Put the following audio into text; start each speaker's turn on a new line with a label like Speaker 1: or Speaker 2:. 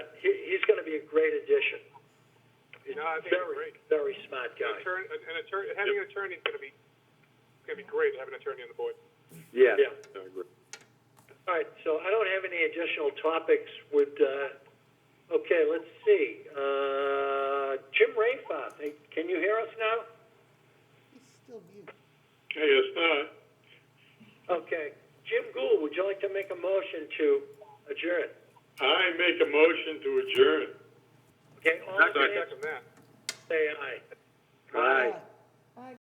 Speaker 1: be a great addition. He's
Speaker 2: No, I
Speaker 1: a
Speaker 2: think it's
Speaker 1: very,
Speaker 2: great.
Speaker 1: very smart
Speaker 2: An
Speaker 1: guy.
Speaker 2: attorney, an attorney, having an attorney is going to be, going to be great to have an attorney on the board.
Speaker 3: Yes,
Speaker 1: Yeah.
Speaker 3: I agree.
Speaker 1: All right, so I don't have any additional topics. Would, uh, okay, let's see. Uh, Jim Rafa, can you hear us now?
Speaker 2: Hey, it's not.
Speaker 1: Okay. Jim Gould, would you like to make a motion to adjourn?
Speaker 2: I make a motion to adjourn.
Speaker 1: Okay, all in
Speaker 2: I
Speaker 1: favor,
Speaker 2: second that.
Speaker 1: say aye.
Speaker 3: Aye.